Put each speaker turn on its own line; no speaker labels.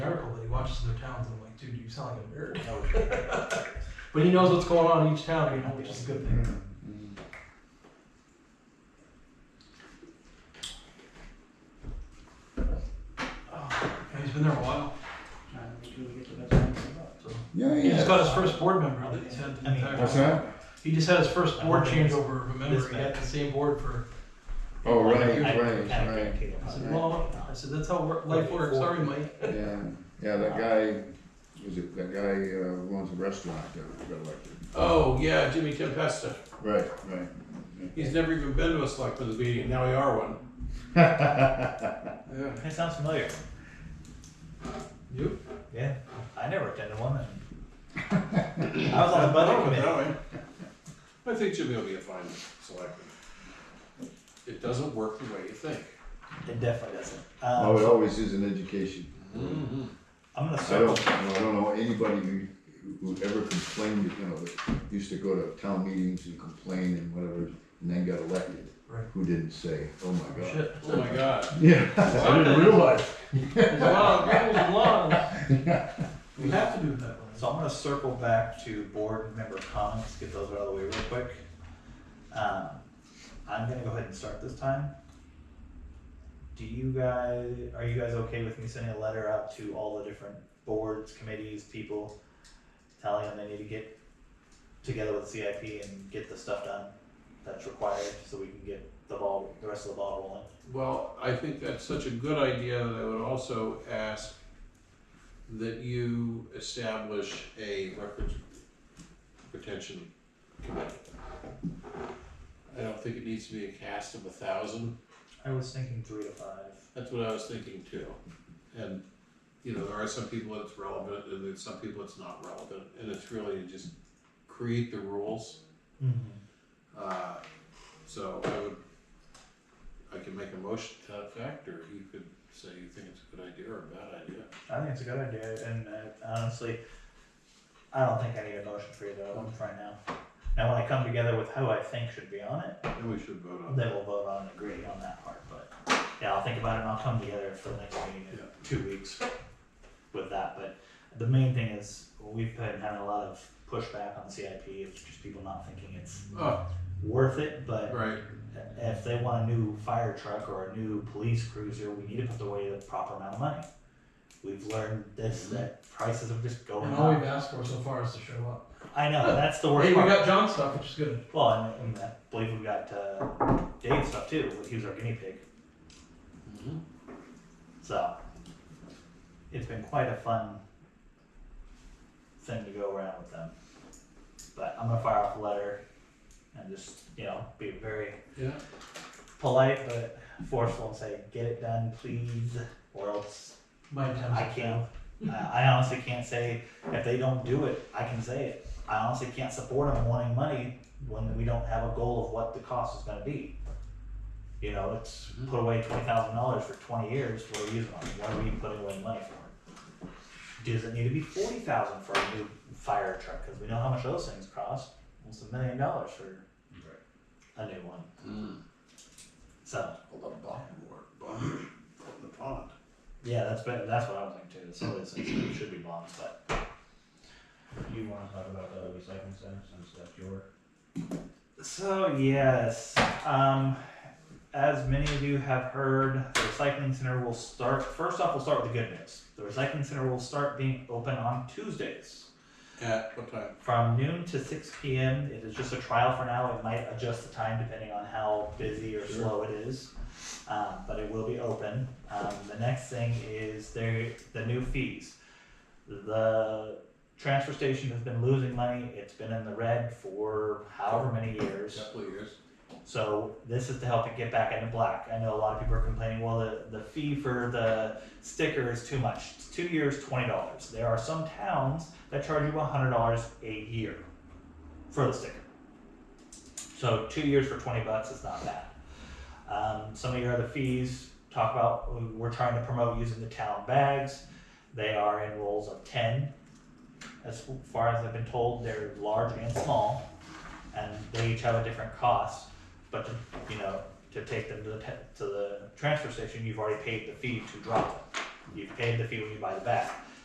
watches their towns and I'm like, dude, you sound like a nerd. but he knows what's going on in each town, you know, which is a good thing. Oh, and he's been there a while. So.
Yeah,
He just
yeah.
got his first board member that he's had the
I mean,
entire
What's that?
He just had his first board changeover of a member.
This
He had the same board for.
Oh, right,
I-
right,
I-
right.
I said, well, I said, that's how wor- life works. Sorry, Mike.
Yeah, yeah, that guy, was it, that guy uh, who owns a restaurant that got elected.
Oh, yeah, Jimmy Tempesta.
Right, right.
He's never even been to a selectmen's meeting, now we are one. Yeah.
That sounds familiar.
You?
Yeah, I never attended one. and- I was on the budget committee.
Oh, I think Jimmy will be a fine selectman. It doesn't work the way you think.
It definitely doesn't.
Uh,
Oh, it
Um,
always is an education. Mm-hmm.
I'm gonna
I
circle.
don't, I don't know anybody who, who ever complained, you know, that used to go to town meetings and complain and whatever, and then got elected.
Right.
Who didn't say, oh my god.
Shit.
Oh my god.
Yeah, I didn't realize.
There's a lot of rules and laws. We have to do it that way.
So I'm gonna circle back to board member comments, get those out of the way real quick. Um, I'm gonna go ahead and start this time. Do you guys, are you guys okay with me sending a letter out to all the different boards, committees, people? Telling them they need to get together with CIP and get the stuff done that's required, so we can get the ball, the rest of the ball rolling?
Well, I think that's such a good idea that I would also ask that you establish a records retention committee. I don't think it needs to be a cast of a thousand.
I was thinking three to five.
That's what I was thinking too. And, you know, there are some people it's relevant and there's some people it's not relevant. And it's really to just create the rules. Uh, so I would, I can make a motion to that effect, or you could say you think it's a good idea or a bad idea.
I think it's a good idea, and uh, honestly, I don't think I need a motion for either of them right now. Now, when I come together with who I think should be on it,
Then we should vote on it.
then we'll vote on and agree on that part, but, yeah, I'll think about it and I'll come together for the next meeting in
Yeah.
two weeks with that, but the main thing is, we've been having a lot of pushback on CIP, it's just people not thinking it's
Oh,
worth it, but
right,
if they want a new fire truck or a new police cruiser, we need to put away the proper amount of money. We've learned this that prices have just going
And all we've
up.
asked for so far is to show up.
I know that's the
Hey,
worst
we
part.
got John stuff, which is good.
Well, and, and I believe we got uh, Dave stuff too. He was our guinea pig,
Mhm.
so it's been quite a fun thing to go around with them. But I'm gonna fire off a letter and just you know be very
yeah,
polite but forceful and say, "Get it done, please," or else
My attempts.
I
at
can't. I I honestly can't say if they don't do it. I can say it. I honestly can't support them wanting money when we don't have a goal of what the cost is going to be. You know, it's put away twenty thousand dollars for twenty years. What are we using it on? What are we putting away money for? Does it need to be forty thousand for a new fire truck? Because we know how much those things cost. Almost a million dollars for a new one.
Mm.
So
I love bottom board, bottom, the pond.
yeah, that's better. That's what I was thinking too. Some of those things should be bombs, but.
You wanna talk about the recycling center since that's your,
So, yes, um, as many of you have heard, the recycling center will start. First off, we'll start with the good news. The recycling center will start being open on Tuesdays
At what time?
from noon to 6 p.m. It is just a trial for now. It might adjust the time depending on how busy or
Sure.
slow it is, um, but it will be open. Um, the next thing is there the new fees. The transfer station has been losing money. It's been in the red for however many years.
Couple of years.
So this is to help it get back into black. I know a lot of people are complaining, well, the, the fee for the sticker is too much. It's two years, twenty dollars. There are some towns that charge you hundred dollars a year for the sticker. So two years for twenty bucks is not bad. Um, some of your other fees talk about we're trying to promote using the town bags. They are in rolls of ten. As far as I've been told, they're large and small, and they each have a different cost. But to, you know, to take them to the te- to the transfer station, you've already paid the fee to drop them. You've paid the fee when you buy the bag.